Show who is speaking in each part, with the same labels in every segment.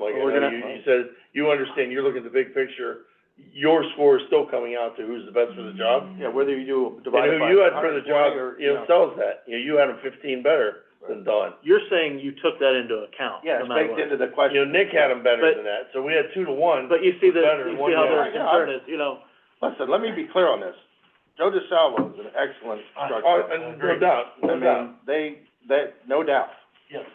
Speaker 1: we're
Speaker 2: know,
Speaker 1: gonna-
Speaker 2: You, you said, you understand, you're looking at the big picture, your score is still coming out to who's the best for the job.
Speaker 1: Yeah, whether you do
Speaker 2: And
Speaker 1: divide
Speaker 2: who
Speaker 1: it by
Speaker 2: you had for the
Speaker 1: 120
Speaker 2: job,
Speaker 1: or,
Speaker 2: you know, sells that, you know, you had him fifteen better than Don.
Speaker 3: You're saying you took that into account,
Speaker 1: Yeah,
Speaker 3: no
Speaker 1: it's
Speaker 3: matter
Speaker 1: baked
Speaker 3: what.
Speaker 1: into the
Speaker 2: You
Speaker 1: question.
Speaker 2: know, Nick had him better
Speaker 3: But-
Speaker 2: than that, so we had two to one.
Speaker 3: But you see the,
Speaker 2: better
Speaker 3: you
Speaker 2: one
Speaker 3: see how
Speaker 2: guy.
Speaker 3: their
Speaker 1: Yeah,
Speaker 3: concern is, you know,
Speaker 1: Listen, let me be clear on this. Joe DeSalvo is an excellent
Speaker 2: Uh,
Speaker 1: instructor.
Speaker 4: Oh,
Speaker 2: uh, no doubt,
Speaker 1: I
Speaker 2: no doubt.
Speaker 1: mean, they, that, no doubt.
Speaker 2: Yes.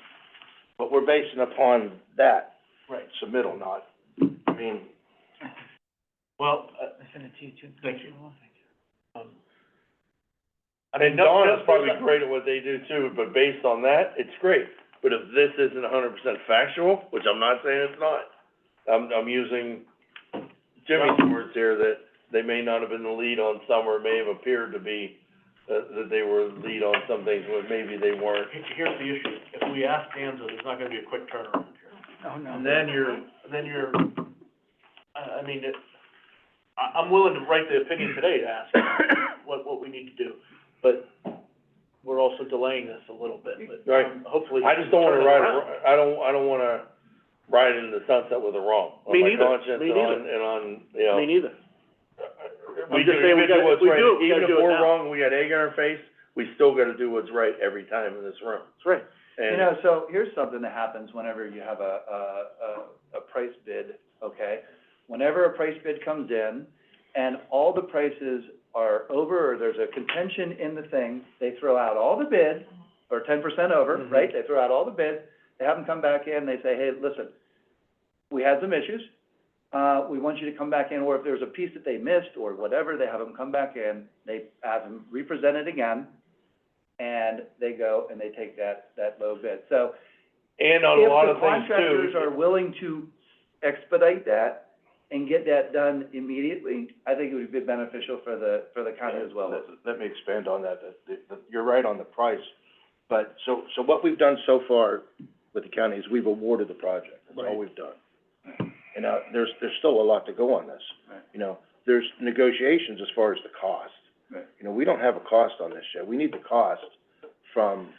Speaker 1: But we're basing upon that
Speaker 4: Right.
Speaker 1: submittal, not, I mean,
Speaker 4: Well, uh. I sent it to you too. Thank you. Um, I mean,
Speaker 2: And
Speaker 4: no,
Speaker 2: Don
Speaker 4: no,
Speaker 2: is probably
Speaker 4: no-
Speaker 2: great at what they do too, but based on that, it's great. But if this isn't hundred percent factual, which I'm not saying it's not, I'm, I'm using Jimmy's words here that they may not have been the lead on some or may have appeared to be, uh, that they were lead on some things, but maybe they weren't.
Speaker 3: he- here's the issue, if we ask Danza, there's not gonna be a quick turnaround here.
Speaker 4: Oh, No, no.
Speaker 3: And then you're, then you're, I, I mean, it, I, I'm willing to write the opinion today to ask what, what we need to do, but we're also delaying this a little bit, but,
Speaker 2: Right.
Speaker 3: um, hopefully.
Speaker 2: I just don't wanna
Speaker 3: turn it
Speaker 2: ride,
Speaker 3: around.
Speaker 2: a- I don't, I don't wanna ride into the sunset with a wrong on
Speaker 3: Me
Speaker 2: my
Speaker 3: neither.
Speaker 2: conscience
Speaker 3: Me
Speaker 2: and on, and on, you know.
Speaker 3: Me neither.
Speaker 2: We
Speaker 3: just
Speaker 2: do-
Speaker 3: saying we
Speaker 2: gotta
Speaker 3: gotta-
Speaker 2: what's
Speaker 3: we
Speaker 2: right.
Speaker 3: do it, we
Speaker 2: Even
Speaker 3: gotta
Speaker 2: if
Speaker 3: do it
Speaker 2: we're
Speaker 3: now.
Speaker 2: wrong, we got egg on our face, we still gotta do what's right every time in this room.
Speaker 3: That's right.
Speaker 4: You
Speaker 2: And,
Speaker 4: know, so here's something that happens whenever you have a, a, a, a price bid, okay? Whenever a price bid comes in and all the prices are over, or there's a contention in the thing, they throw out all the bid, or ten percent over,
Speaker 3: Mhm.
Speaker 4: right? They throw out all the bids, they have them come back in, they say, hey, listen, we had some issues, uh, we want you to come back in, or if there's a piece that they missed or whatever, they have them come back in, they have them represent it again, and they go and they take that, that low bid. So
Speaker 2: and on a lot of things
Speaker 4: if the contractors are
Speaker 2: too,
Speaker 4: willing to expedite that and get that done immediately, I think it would be beneficial for the, for the county as well.
Speaker 1: Let- Let me expand on that, that, that- that, you're right on the price, but, so, so what we've done so far with the county is we've awarded the project, that's all
Speaker 3: Right.
Speaker 1: we've done. And, uh, there's, there's still a lot to go on this.
Speaker 4: Right.
Speaker 1: You know, there's negotiations as far as the cost.
Speaker 4: Right.
Speaker 1: You know, we don't have a cost on this yet, we need the cost from,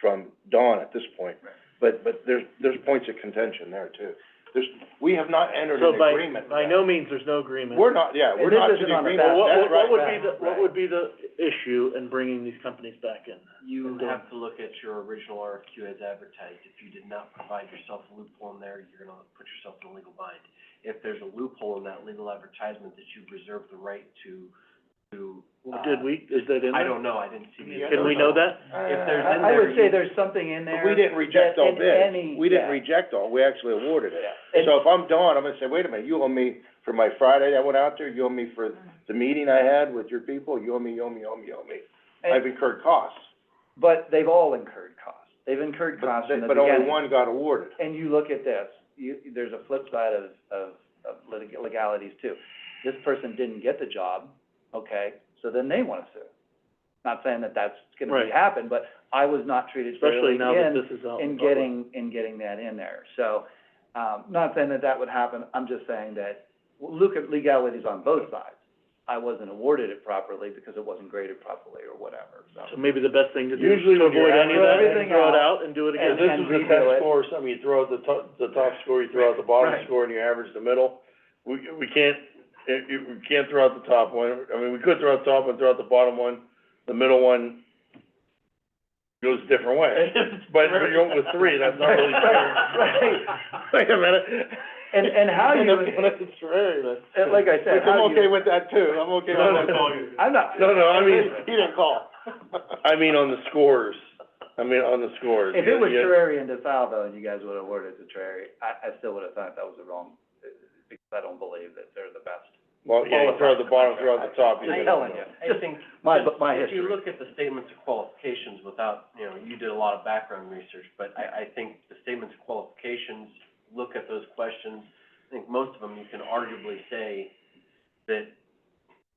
Speaker 1: from Dawn at this point.
Speaker 4: Right.
Speaker 1: But, but there's, there's points of contention there too. There's, we have not entered
Speaker 3: So
Speaker 1: an
Speaker 3: by,
Speaker 1: agreement.
Speaker 3: by no means, there's no agreement.
Speaker 1: We're not, yeah,
Speaker 4: And
Speaker 1: we're
Speaker 4: this
Speaker 1: not to
Speaker 4: isn't
Speaker 1: the
Speaker 4: on the
Speaker 1: agreement,
Speaker 4: back.
Speaker 3: Well, what,
Speaker 1: that's
Speaker 3: what,
Speaker 1: right,
Speaker 3: what
Speaker 1: Matt.
Speaker 3: would be the, what would be the issue in bringing these companies back in?
Speaker 5: You have to look at your original RFQ as advertised. If you did not provide yourself a loophole in there, you're gonna put yourself in a legal bind. If there's a loophole in that legal advertisement that you reserve the right to, to, uh,
Speaker 3: Did we, is that in there?
Speaker 5: I don't know, I didn't see the.
Speaker 3: Can we know that?
Speaker 1: Uh,
Speaker 5: If there's in
Speaker 4: I, I would
Speaker 5: there,
Speaker 4: say
Speaker 5: you-
Speaker 4: there's something in
Speaker 1: But
Speaker 4: there.
Speaker 1: we didn't reject
Speaker 4: that
Speaker 1: all
Speaker 4: in
Speaker 1: bids,
Speaker 4: any-
Speaker 1: we didn't
Speaker 4: yeah.
Speaker 1: reject all, we actually awarded it.
Speaker 4: And-
Speaker 1: So if I'm Dawn, I'm gonna say, wait a minute, you owe me for my Friday I went out there, you owe me for the meeting I had with your people, you owe me, you owe me, you owe me, you owe me.
Speaker 4: and-
Speaker 1: I've incurred costs,
Speaker 4: But they've all incurred costs. They've incurred
Speaker 1: but,
Speaker 4: costs from the
Speaker 1: but only
Speaker 4: beginning.
Speaker 1: one got awarded.
Speaker 4: And you look at this, you, there's a flip side of, of, of litig- legalities too. This person didn't get the job, okay, so then they wanna sue. Not saying that that's gonna be
Speaker 3: Right.
Speaker 4: happen, but I was not treated fairly
Speaker 3: Especially
Speaker 4: in,
Speaker 3: now that this is out. in
Speaker 4: in
Speaker 3: the public.
Speaker 4: getting, in getting that in there. So, um, not saying that that would happen, I'm just saying that, well, look at legalities on both sides. I wasn't awarded it properly because it wasn't graded properly or whatever, so.
Speaker 3: So maybe the best thing to do is
Speaker 2: Usually
Speaker 3: to
Speaker 2: when you're
Speaker 3: avoid any of
Speaker 4: out-
Speaker 3: that and
Speaker 4: Everything
Speaker 3: throw it out
Speaker 4: out.
Speaker 3: and do it
Speaker 2: if
Speaker 3: again.
Speaker 4: And-
Speaker 2: this was a
Speaker 4: redo
Speaker 2: ten
Speaker 4: it.
Speaker 2: score or something, you throw out the top, the top score, you throw out the bottom
Speaker 4: Right.
Speaker 2: score, and you average the middle. We, we can't, it, it, we can't throw out the top one, I mean, we could throw out the top one, throw out the bottom one, the middle one goes a different way. But if you're going with three, that's not really fair.
Speaker 4: Right.
Speaker 2: Wait a minute.
Speaker 4: And, and how you,
Speaker 2: It's rare, but.
Speaker 4: and like I said,
Speaker 1: Which
Speaker 4: how
Speaker 1: I'm
Speaker 4: you-
Speaker 1: okay with that too, I'm okay
Speaker 2: No,
Speaker 1: with that.
Speaker 2: no,
Speaker 4: I'm not.
Speaker 2: No, no, I mean,
Speaker 1: He didn't call.
Speaker 2: I mean on the scores, I mean on the scores.
Speaker 4: If it was
Speaker 2: Yeah.
Speaker 4: Terrari and DeSalvo and you guys would have awarded to Terrari, I, I still would have thought that was the wrong, uh, because I don't believe that they're the best.
Speaker 2: Well, yeah, you throw out the bottom, throw out the top.
Speaker 4: I'm
Speaker 2: you
Speaker 4: just
Speaker 2: know.
Speaker 4: telling you,
Speaker 5: I
Speaker 4: just
Speaker 5: think,
Speaker 4: my,
Speaker 5: just-
Speaker 4: my
Speaker 5: if
Speaker 4: history.
Speaker 5: you look at the statements of qualifications without, you know, you did a lot of background research, but I, I think the statements of qualifications, look at those questions. I think most of them, you can arguably say that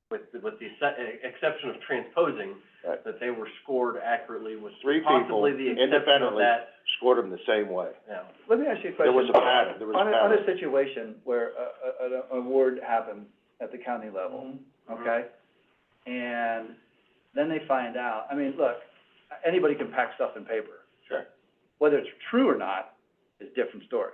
Speaker 5: with, with the exce- eh, exception of transposing,
Speaker 1: Right.
Speaker 5: that they were scored accurately with
Speaker 1: Three people
Speaker 5: possibly the exception of
Speaker 1: independently.
Speaker 5: that,
Speaker 1: Scored him the same way.
Speaker 5: yeah.
Speaker 4: Let me ask you a question.
Speaker 1: There was a pattern, there was a
Speaker 4: On a,
Speaker 1: pattern.
Speaker 4: on a situation where a, a, an award happened at the county level,
Speaker 5: Mm-hmm.
Speaker 4: okay? And then they find out, I mean, look, anybody can pack stuff in paper.
Speaker 1: Sure.
Speaker 4: Whether it's true or not is a different story.